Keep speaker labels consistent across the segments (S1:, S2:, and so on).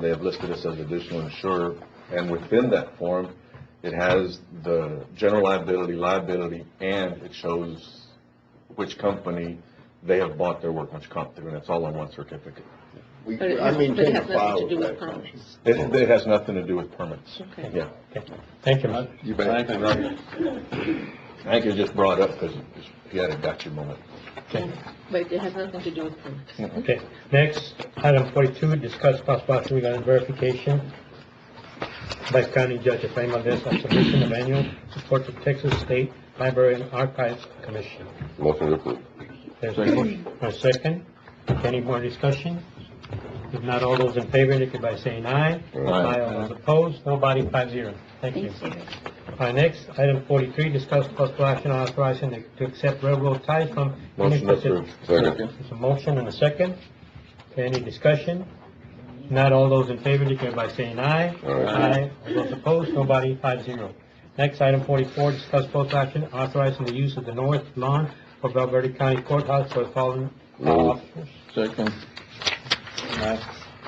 S1: They have listed us as additional insurer, and within that form, it has the general liability, liability, and it shows which company they have bought their workman's comp through, and it's all on one certificate.
S2: We,
S3: But it
S2: I
S3: has, but it
S2: maintain a
S3: has
S2: file
S3: nothing to do
S2: with that.
S3: with permits.
S1: It, it has nothing to do with permits.
S3: Okay.
S1: Yeah.
S4: Thank you, Mr.
S2: You
S1: I
S2: bet.
S1: think it was just brought up because he had a gotcha moment.
S4: Okay.
S3: But it has nothing to do with permits.
S4: Okay, next, item forty-two, discuss possible action regarding verification by county judge of Bangladesh on submission of annual report to Texas State Library and Archives Commission.
S5: Motion to approve.
S4: There's a motion, a second. Any more discussion? If not, all those in favor indicate by saying aye. Aye. All those opposed, nobody, five zero. Thank you. Our next, item forty-three, discuss possible action on authorizing to- to accept railroad ties from.
S1: Motion approved.
S5: Second.
S4: There's a motion and a second. Any discussion? Not all those in favor, indicate by saying aye.
S5: Aye.
S4: All those opposed, nobody, five zero. Next, item forty-four, discuss possible action authorizing the use of the north lawn of Valverde County Courthouse for the following
S5: Move.
S4: officers.
S2: Second.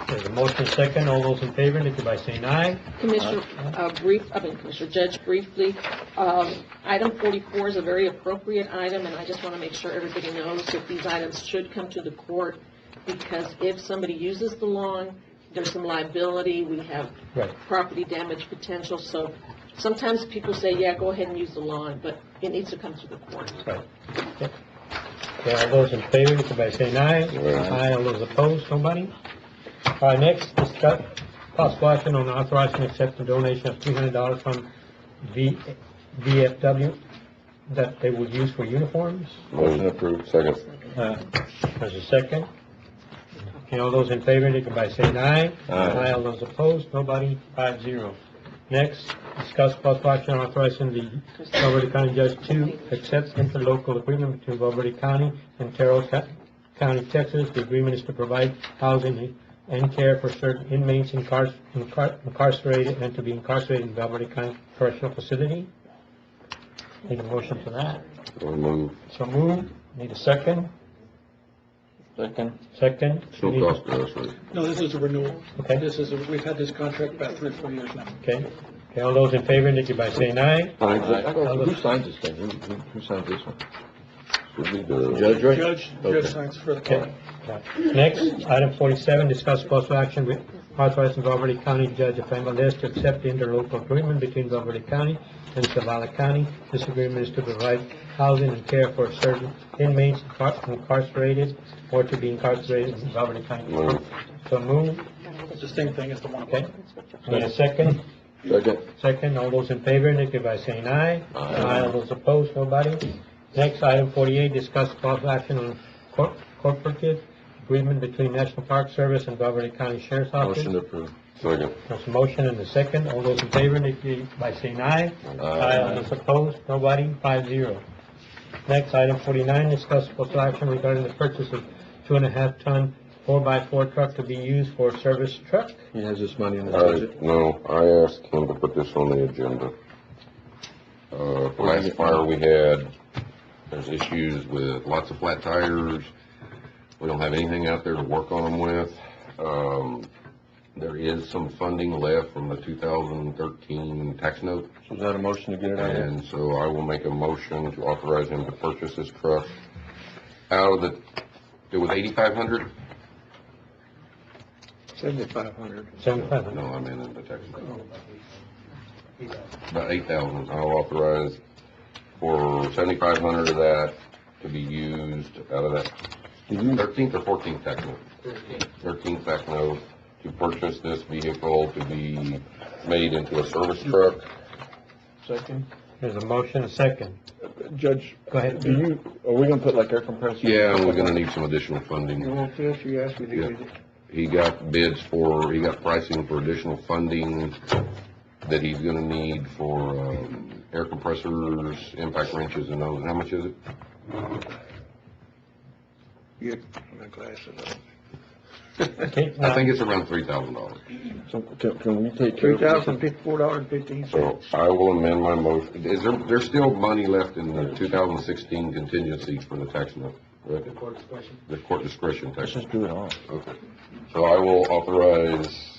S4: There's a motion and a second. All those in favor, indicate by saying aye.
S3: Commissioner, uh, brief, I mean, Commissioner Judge, briefly, um, item forty-four is a very appropriate item, and I just want to make sure everybody knows that these items should come to the court, because if somebody uses the lawn, there's some liability, we have
S4: Right.
S3: property damage potential, so sometimes people say, yeah, go ahead and use the lawn, but it needs to come to the court.
S4: Okay, all those in favor, indicate by saying aye.
S5: Aye.
S4: All those opposed, nobody? All right, next, discuss possible action on authorizing and accepting donation of three hundred dollars from V, VFW that they would use for uniforms.
S5: Motion approved. Second.
S4: Uh, There's a second. Okay, all those in favor, indicate by saying aye.
S1: Aye.
S4: All those opposed, nobody, five zero. Next, discuss possible action authorizing the Valverde County Judge to accept interlocal agreement between Valverde County and Terrell Co- County, Texas. The agreement is to provide housing and care for certain inmates incar- incar- incarcerated and to be incarcerated in Valverde County Correctional Facility. Need a motion for that?
S5: Move.
S4: So move. Need a second?
S2: Second.
S4: Second?
S5: It's no cost to us, right?
S6: No, this is a renewal.
S4: Okay.
S6: This is, a- we've had this contract about three, or four years now.
S4: Okay, okay, all those in favor indicate by saying aye.
S1: Who signs this thing? Who, who, who signs this one?
S5: Should be the.
S1: Judge, right?
S6: Judge,
S1: Okay.
S6: judge signs for the court.
S4: Okay. Next, item forty-seven, discuss possible action with authorizing Valverde County Judge of Bangladesh to accept the interlocal agreement between Valverde County and Zavala County. This agreement is to provide housing and care for certain inmates incar- incarcerated or to be incarcerated in Valverde County.
S5: Move.
S4: So move,
S6: It's the same thing as the one
S4: okay,
S6: above.
S4: need a second?
S5: Second.
S4: Second, all those in favor indicate by saying aye.
S5: Aye.
S4: All those opposed, nobody. Next, item forty-eight, discuss possible action on cor- corporate agreement between National Park Service and Beverly County Sheriff's Office.
S1: Motion approved.
S5: Second.
S4: There's a motion and a second, all those in favor indicate by saying aye.
S5: Aye.
S4: All those opposed, nobody, five zero. Next, item forty-nine, discuss possible action regarding the purchase of two and a half ton four-by-four truck to be used for service truck.
S1: He has this money in his
S5: I,
S1: budget.
S5: no, I asked him to put this on the agenda. Uh, last fire we had, there's issues with lots of flat tires. We don't have anything out there to work on them with. Um, there is some funding left from the two thousand thirteen tax note.
S1: So is that a motion to get it out here?
S5: And so I will make a motion to authorize him to purchase this truck out of the, it was eighty-five hundred?
S2: Seventy-five hundred.
S4: Seventy-five
S5: No,
S4: hundred.
S5: I meant in the tax. About eight thousand, I'll authorize for seventy-five hundred of that to be used out of that thirteenth or fourteenth tax note. Thirteenth tax note to purchase this vehicle to be made into a service truck.
S2: Second.
S4: There's a motion, a second.
S1: Judge,
S4: Go ahead.
S1: do you, are we gonna put like air compressors?
S5: Yeah, and we're gonna need some additional
S2: You
S5: funding.
S2: want this, you asked me to
S5: Yeah.
S2: get it.
S5: He got bids for, he got pricing for additional funding that he's gonna need for, um, air compressors, impact wrenches and those. How much is it?
S2: You had my glasses on.
S4: Okay,
S5: I
S4: now-
S5: think it's around three thousand dollars.
S1: So can, can we take care
S2: Three
S1: of this?
S2: thousand fifty-four dollars and fifteen
S5: So
S2: cents.
S5: I will amend my motion. Is there, there's still money left in the two thousand sixteen contingency for the tax note, right? The court discretion tax.
S1: Let's just do it all.
S5: Okay. So I will authorize um,